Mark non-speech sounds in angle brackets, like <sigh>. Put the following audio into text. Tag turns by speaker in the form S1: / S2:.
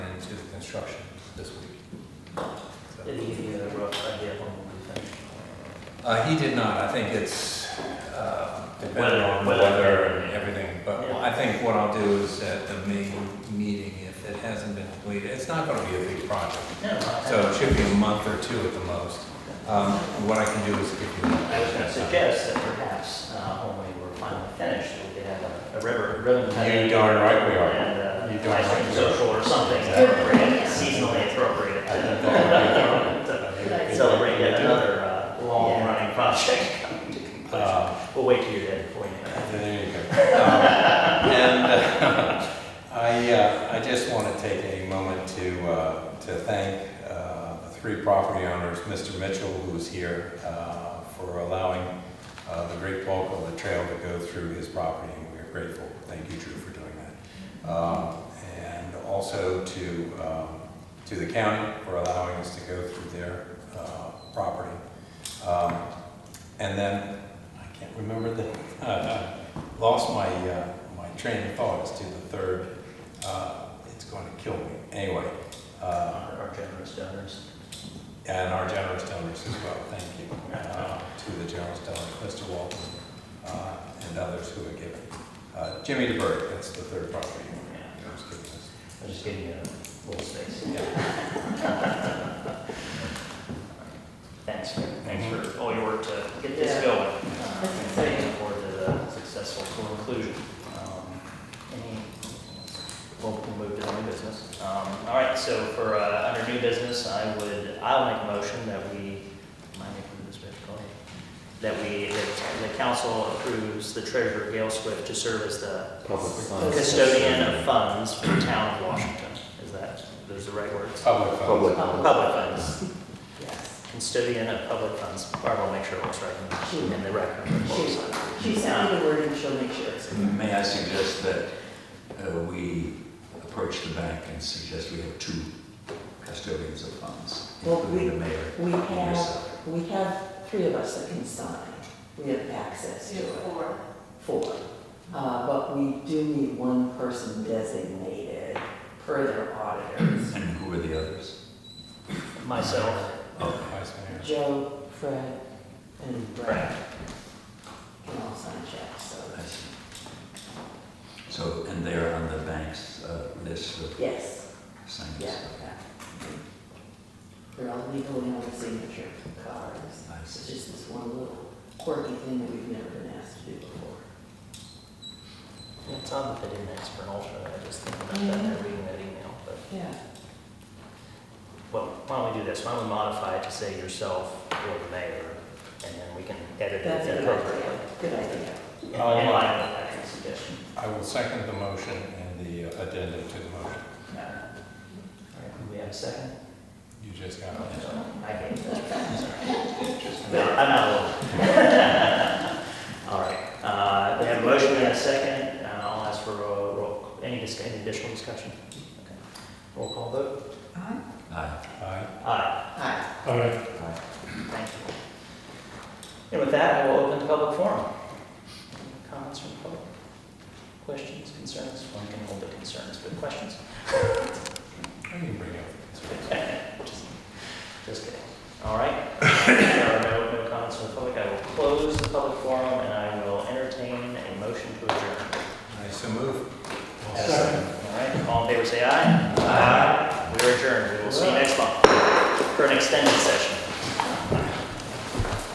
S1: construction this week.
S2: Did he give you a uh, rough idea of when we'll be finished?
S1: Uh, he did not, I think it's, uh, dependent
S2: Weather-
S1: on
S2: weather.
S1: weather and everything, but
S2: Yeah.
S1: I think what I'll do is at the May meeting, if it hasn't been completed, it's not gonna be a big project.
S2: No, I-
S1: So it should be a month or two at the most. Um, what I can do is give you.
S2: I was gonna suggest that perhaps, uh, when we were finally finished, we could have a- a river, ribbon cutting.
S1: You darn right we are. You
S2: And, uh,
S1: darn
S2: ice
S1: right
S2: cream
S1: we are.
S2: social or something
S3: Yeah.
S2: appropriate, seasonally appropriate.
S1: I think that would be
S2: To
S1: perfect.
S2: Celebrate yet another, uh, long-running project. <laughs>
S1: Uh,
S2: We'll wait till you're dead before you know.
S1: There you go. Um, And uh, <laughs> I, uh, I just want to take a moment to, uh, to thank uh, the three property owners, Mr. Mitchell, who's here, uh, for allowing uh, the great bulk of the trail to go through his property, and we're grateful. Thank you, Drew, for doing that. Um, And also to, um, to the county for allowing us to go through their uh, property. Um, And then, I can't remember the, <laughs> uh, lost my, uh, my train of thought as to the third. Uh, It's going to kill me. Anyway, uh,
S2: Our our generous donors.
S1: and our generous donors as well, thank you. uh, To the generous donors, Mr. Walton uh, and others who have given. Uh, Jimmy DeBerg, that's the third property owner.
S2: Yeah.
S1: who's given us.
S2: I'll just give you a little space. Thanks, thanks for all your work to get this
S3: Mm-hmm. Yeah.
S2: going. Uh,
S3: That's
S2: and
S3: exciting.
S2: Looking forward to the successful conclusion. Um, Any, we'll we'll move to new business. Um, All right, so for, uh, under new business, I would, I'll make a motion that we, am I making this motion? Go ahead. That we, that the council approves the treasurer Gail Swift to serve as the
S4: Public funds.
S2: custodian of funds for the town of Washington. Is that, those the right words?
S1: Public funds.
S4: Public.
S2: Public funds,
S3: Yes,
S2: custodian of public funds. Barbara will make sure it was right in- in the record.
S3: she, she sounded the word and she'll make sure it's.
S5: May I suggest that uh, we approach the bank and suggest we have two custodians of funds,
S3: Well,
S5: including
S3: we-
S5: the mayor
S3: We
S5: and
S3: have,
S5: yourself.
S3: we have three of us that can sign, we have access to
S6: Two,
S3: it,
S6: four.
S3: four. Uh, but we do need one person designated per their auditors.
S5: And who are the others?
S2: Um, Myself,
S5: Okay.
S1: Vice Mayor.
S3: Joe, Fred, and Brad
S2: Brad.
S3: can all sign checks, so,
S5: I see. So, and they're on the bank's uh, list of
S3: yes,
S5: signers?
S3: yeah. They're all legally on the signature cards.
S5: I
S3: It's
S5: see.
S3: just this one little quirky thing that we've never been asked to do before.
S2: it's odd that they didn't ask for an alternate, I just think about that,
S3: Mm-hmm.
S2: and reading that email, but,
S3: Yeah.
S2: well, why don't we do this? Why don't we modify it to say yourself or the mayor, and then we can edit
S3: That's a
S2: it
S3: good
S2: appropriately.
S3: idea, good idea.
S2: In line with that suggestion.
S1: I will second the motion and the uh, addenda to the motion.
S2: All right, do we have a second?
S1: You just got
S2: I
S1: it.
S2: hate that. No, I'm not alone. <laughs> All right, uh, we have a motion and a second, uh, I'll ask for a roll, any discuss, any additional discussion? Okay. Roll call vote?
S3: Aye.
S5: Aye.
S1: Aye.
S2: Aye,
S3: Aye.
S2: thank you. And with that, I will open the public forum. Any Comments from the public? Questions, concerns? One can hold the concerns, but questions?
S1: I can bring up.
S2: Just just kidding. All right. There are no, no comments from the public. I will close the public forum and I will entertain a motion to adjourn.
S1: I so move.
S2: All right, all in favor, say aye. Aye. We are adjourned. We will see you next month for an extended session.